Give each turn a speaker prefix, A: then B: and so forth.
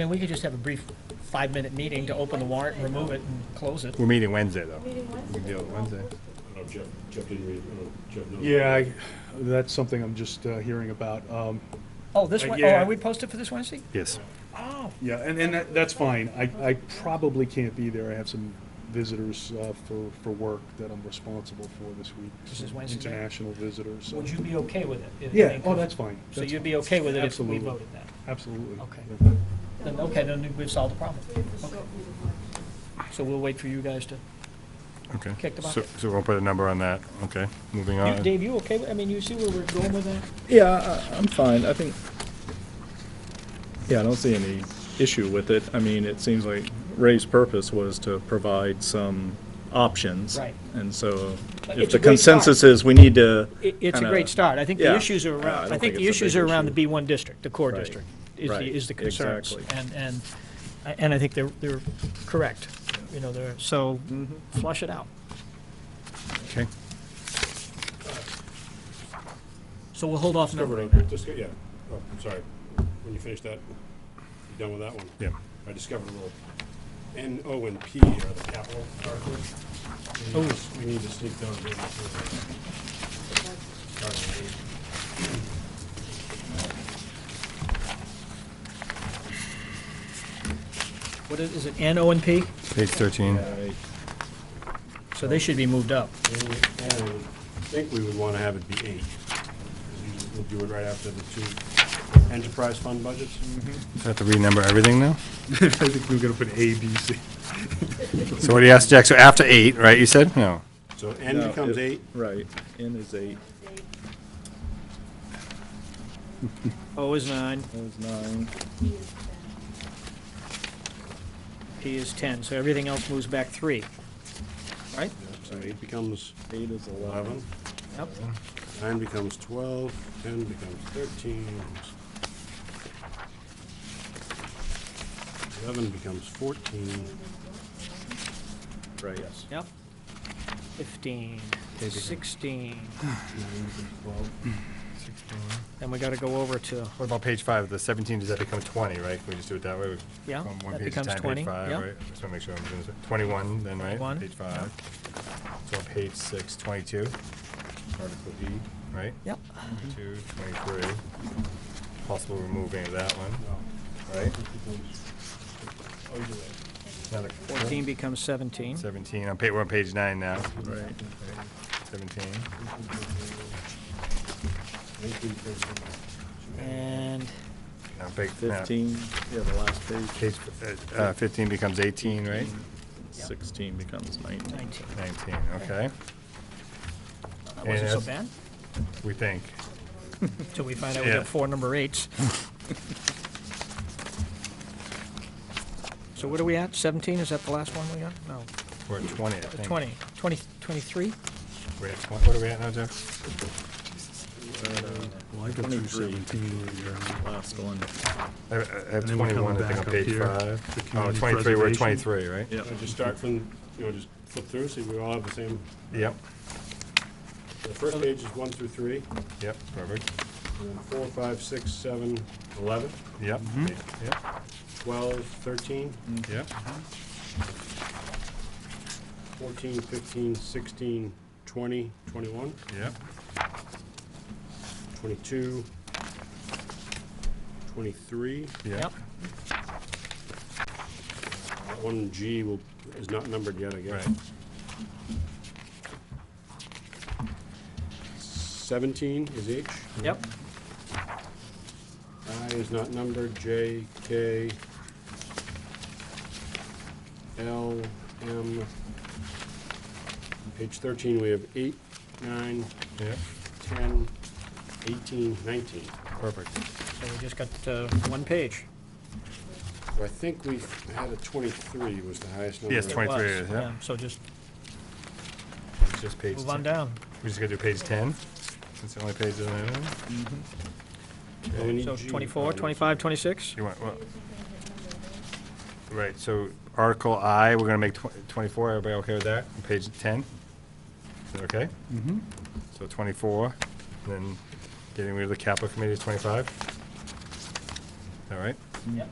A: I mean, we could just have a brief five-minute meeting to open the warrant, remove it, and close it.
B: We're meeting Wednesday, though. We can deal with Wednesday.
C: Oh, Jeff, Jeff didn't read, it. oh, Jeff knows.
D: Yeah, I- that's something I'm just uh, hearing about. Um,
A: Oh, this
D: Uh,
A: one, oh,
D: yeah.
A: are we posted for this Wednesday?
B: Yes.
A: Oh,
D: Yeah, and, and that- that's fine. I, I probably can't be there. I have some visitors uh, for, for work that I'm responsible for this week.
A: This is
D: some
A: Wednesday night?
D: International visitors. so-
A: would you be okay with it? if-
D: Yeah, oh, that's fine.
A: So
D: That's
A: you'd be
D: fine.
A: okay with it if we
D: Absolutely.
A: voted that?
D: Absolutely.
A: Okay.
D: Yeah.
A: Then, okay, then we've solved the problem. Okay. So we'll wait for you guys to,
B: Okay.
A: Kick the
B: So
A: bucket.
B: so we'll put a number on that. Okay, moving
E: Uh,
A: You-
B: on.
A: Dave, you okay, with- I mean, you see where we're going with that?
E: Yeah, I- I'm fine. I think, yeah, I don't see any issue with it. I mean, it seems like Ray's purpose was to provide some options.
A: Right.
E: And so
A: But
E: if
A: it's a
E: the
A: great start.
E: consensus is we need to.
A: It, it's a
E: kinda-
A: great start. I think the
E: Yeah.
A: issues are
E: Yeah, I
A: around,
E: don't
A: I think
E: think
A: the
E: it's a big
A: issues are around the
E: issue.
A: B1 district, the core
E: Right.
A: district, is
E: Right.
A: the, is the concerns.
E: Exactly.
A: And, and, and I think they're, they're correct, you know, they're, so
E: Mm-hmm.
A: flush it out.
B: Okay.
A: So we'll hold off
C: Discovered,
A: number
C: I- disco- yeah, oh, I'm sorry, when you finish that, you done with that one?
B: Yeah.
C: I discovered a little, N, O, and P are the capital articles. We need- We need to sneak down. and do this. Sorry, Lee.
A: What is, is it N, O, and P?
B: Page 13.
E: Right.
A: So they should be moved up.
C: And I would think we would want to have it be eight. 'cause you- We'll do it right after the two enterprise fund budgets.
B: So I Have to renumber everything now?
D: I think we were going to put A, B, C.
B: So what do you ask, Jack? So after eight, right, you said? No.
C: So N becomes
E: No, it-
C: eight,
E: Right. N is eight,
A: O is nine,
E: O is nine.
A: P is 10, so everything else moves back three. Right?
C: so eight becomes
E: Eight is 11.
C: eleven,
A: Yep.
C: nine becomes twelve, ten becomes thirteen. Eleven becomes fourteen,
E: Right.
A: Yep. 15, 16,
C: nine becomes twelve.
A: then we got to go over to,
B: What about page five, the 17, does that become 20, right? Can we just do it that way? We-
A: Yeah,
B: one- one
A: that
B: page at a
A: becomes
B: time, page
A: 20,
B: five,
A: yeah.
B: right? Just want to make sure I'm doing this. 21 then, right?
A: 21,
B: Page five. So on page six, 22, Article E, right?
A: yep, Mm-hmm.
B: 22, 23, possible removing of that one, right?
C: Oh, you're right.
B: Another
A: 14 becomes 17.
B: 17, on pa, we're on page nine now,
E: Right.
B: 17.
C: Nineteen becomes eleven.
A: And
B: Now, big- now,
E: Fifteen, yeah, the last page.
B: Page, uh, uh, 15 becomes 18, right?
E: Sixteen becomes nineteen.
A: 19.
B: 19, okay,
A: That wasn't so
B: that's-
A: bad,
B: we think.
A: until we find out we
B: Yeah.
A: got four number eights. So what are we at, 17, is that the last one we got? No,
B: We're at 20, I think.
A: 20, 20, 23?
B: We're at 20. What are we at now, Jeff?
D: Well, I go
E: through 17 Last one.
B: I I have
D: And then we're
B: 21,
D: coming
B: I think, on
D: back up
B: page
D: here
B: five.
D: to
B: Oh, 23,
D: community
B: we're at
D: preservation.
B: 23, right?
E: Yep.
C: So Just start from, you know, just flip through, see if we all have the same,
B: Yep,
C: the first page is one through three,
B: yep, perfect,
C: and then four, five, six, seven, eleven,
B: yep,
C: Mm-hmm.
B: yep,
C: twelve, thirteen,
B: yep,
C: 14, 15, 16, 20, 21,
B: yep,
C: 22, 23.
B: yep.
C: That One G will, is not numbered yet, I guess.
B: Right.
C: 17 is H.
A: Yep,
C: I is not numbered, J, K, L, M. Page 13, we have 8, 9,
B: Yep,
C: 10, 18, 19.
B: perfect.
A: so we just got uh, one page.
C: So I think we had a 23 was the highest number.
B: Yes,
C: I
B: 23
A: Was,
B: is, yeah.
A: So just
B: It's Just page
A: move on
B: 10.
A: down.
B: We just gotta do page 10, since the only page is in there.
C: Oh, we need
A: So
C: G.
A: 24, 25, 26?
B: You want, well. Right, so Article I, we're gonna make tw- 24, everybody okay with that? On Page 10? Is that okay? Mm-hmm. So 24, and then getting rid of the capital committee is 25? All right?
A: Yep.